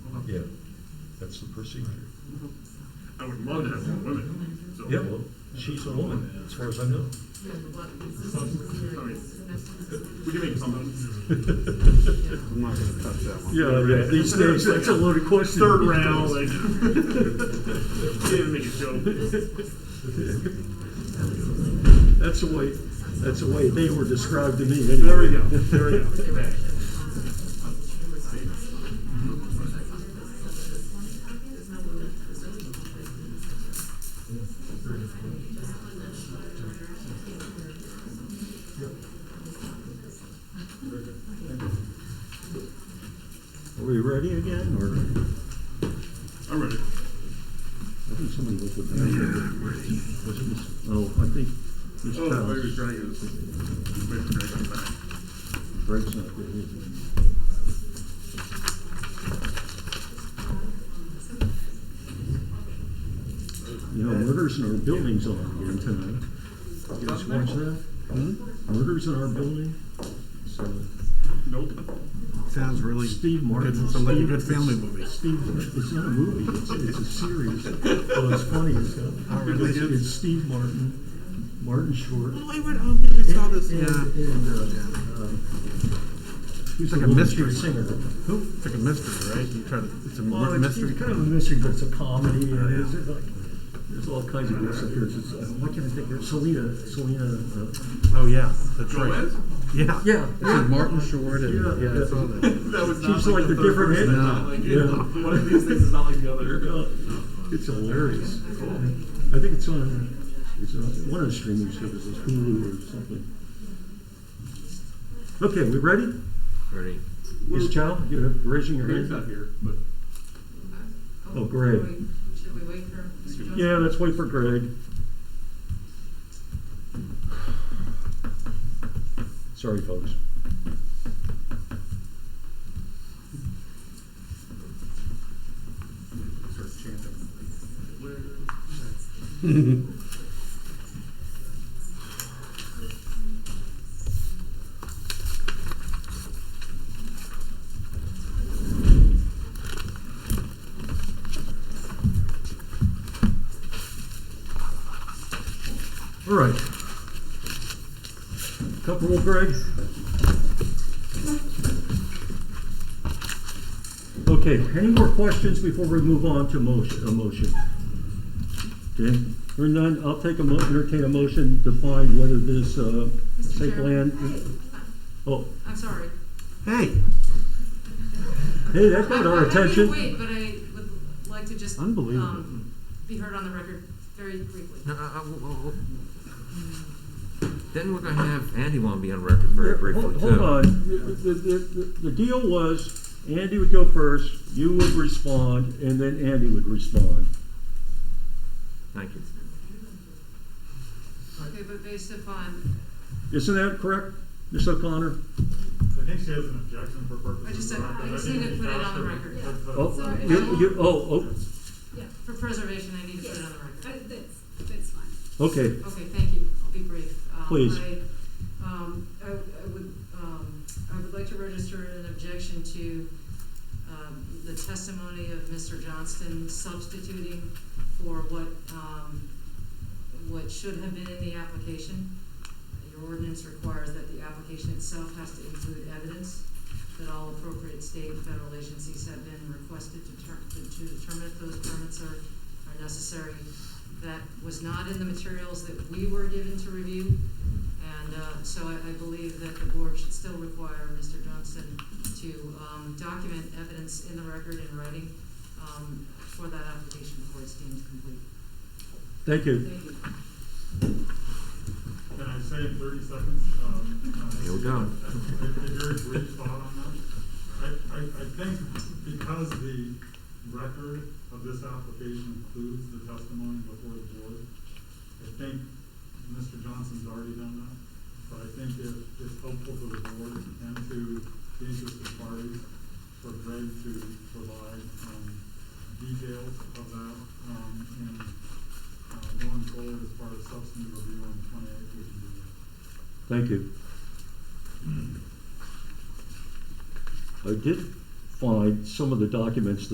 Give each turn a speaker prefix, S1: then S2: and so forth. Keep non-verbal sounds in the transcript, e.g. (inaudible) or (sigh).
S1: That's the procedure.
S2: I would love to have more women, so.
S1: Yeah, well, she's a woman, as far as I know.
S2: We can make something.
S3: I'm not gonna touch that one.
S1: Yeah, yeah, these days, that's a loaded question.
S2: Third round, like. (laughs) Can't even make a joke.
S1: That's the way, that's the way they were described to me anyway.
S2: There we go, there we go. Back.
S1: (laughs) Are we ready again, or?
S2: I'm ready.
S1: I think somebody looked at that. Was it Miss, oh, I think Miss
S2: Oh, I was
S1: Childs.
S2: trying to. Wait for Greg to come back.
S1: Greg's not there, is he? You know, murders in our building's on again tonight. You guys watch that?
S3: Hmm?
S1: Murders in our building? So,
S2: Nope.
S3: Sounds really,
S1: Steve Martin.
S3: Good- sounds like a
S1: Steve-
S3: good family movie.
S1: Steve, it's not a movie, it's, it's a series, but it's funny as hell.
S3: Oh, really?
S1: It's- It's Steve Martin, Martin Short.
S3: I went home and saw this.
S1: And,
S3: Yeah,
S1: and, uh, um, who's
S3: It's like
S1: the
S3: a
S1: woman
S3: mystery.
S1: Singer. Who?
S3: it's like a mystery, right? You try to, it's a
S1: Well,
S3: mur-
S1: it's,
S3: mystery.
S1: it's kind of a mystery, but it's a comedy, and it's it's like, there's all kinds of disappearances. Uh, What can I think of? Selena, Selena, uh,
S3: Oh, yeah, that's right.
S2: Gomez?
S3: Yeah.
S1: yeah.
S3: It's like Martin Short and,
S1: Yeah,
S3: yeah, I saw
S1: yeah.
S3: that.
S2: That was
S1: She's like the
S2: third
S1: different
S2: person,
S1: head.
S2: not like-
S1: Yeah.
S2: One of these things is not like the other.
S1: Uh, It's hilarious. I think it's on, it's on one of the streaming services, Hulu or something. Okay, we ready?
S4: Ready.
S1: Ms. Chow, you have raising your
S2: Greg's
S1: hand?
S2: not here, but
S1: Oh, Greg.
S5: Should we wait for? Mr. Johnson?
S1: Yeah, let's wait for Greg. Sorry, folks.
S2: start chanting. Where-
S1: All right. Comfortable, Greg? Okay, any more questions before we move on to motion, a motion? Okay, or none, I'll take a mo, entertain a motion to find whether this, uh,
S5: Mr.
S1: site
S5: Chairman?
S1: plan.
S5: Hey,
S1: Oh,
S5: I'm sorry.
S3: Hey,
S1: hey, that got
S5: I-
S1: our attention.
S5: I need to wait, but I would like to just.
S3: Unbelievable.
S5: um, Be heard on the record very briefly.
S4: No, I- I- Uh, w- w- w- Then we're gonna have Andy want to be on record very briefly
S1: Hold
S4: too.
S1: hold on, the, the, the, the deal was, Andy would go first, you would respond, and then Andy would respond.
S4: Thank you.
S5: Okay, but based upon,
S1: Isn't that correct, Ms. O'Connor?
S6: I think she has an objection for purposes.
S5: I just said-
S6: of record.
S5: I just need to
S6: think
S5: put it on
S6: Josh
S5: the
S6: should-
S5: record.
S6: should put-
S1: Oh,
S7: Sorry.
S1: you, you, oh,
S7: Yeah,
S5: for preservation, I need to put it on the
S7: uh,
S5: record.
S7: that's, that's fine.
S1: oh, okay,
S5: Okay, thank you. I'll be brief. Um,
S1: Please.
S5: I, um, I, I would, um, I would like to register an objection to, um, the testimony of Mr. Johnston substituting for what, um, what should have been in the application. Your ordinance requires that the application itself has to include evidence that all appropriate state and federal agencies have been requested to ter- to- to determine if those permits are, are necessary. That was not in the materials that we were given to review. And, uh, so I, I believe that the board should still require Mr. Johnston to, um, document evidence in the record in writing, um, for that application before it's deemed complete.
S1: thank you.
S5: Thank you.
S6: Can I say in thirty seconds? um, uh,
S4: Here we go.
S6: A a very brief thought on that. I, I, I think because the record of this application includes the testimony before the board, I think Mr. Johnson's already done that, but I think it, it's helpful to the board and to the interested parties for Greg to provide, um, details of that, um, and, uh, going forward as far as substantive review on twenty-eight, we can do that.
S1: Thank you. I did find some of the documents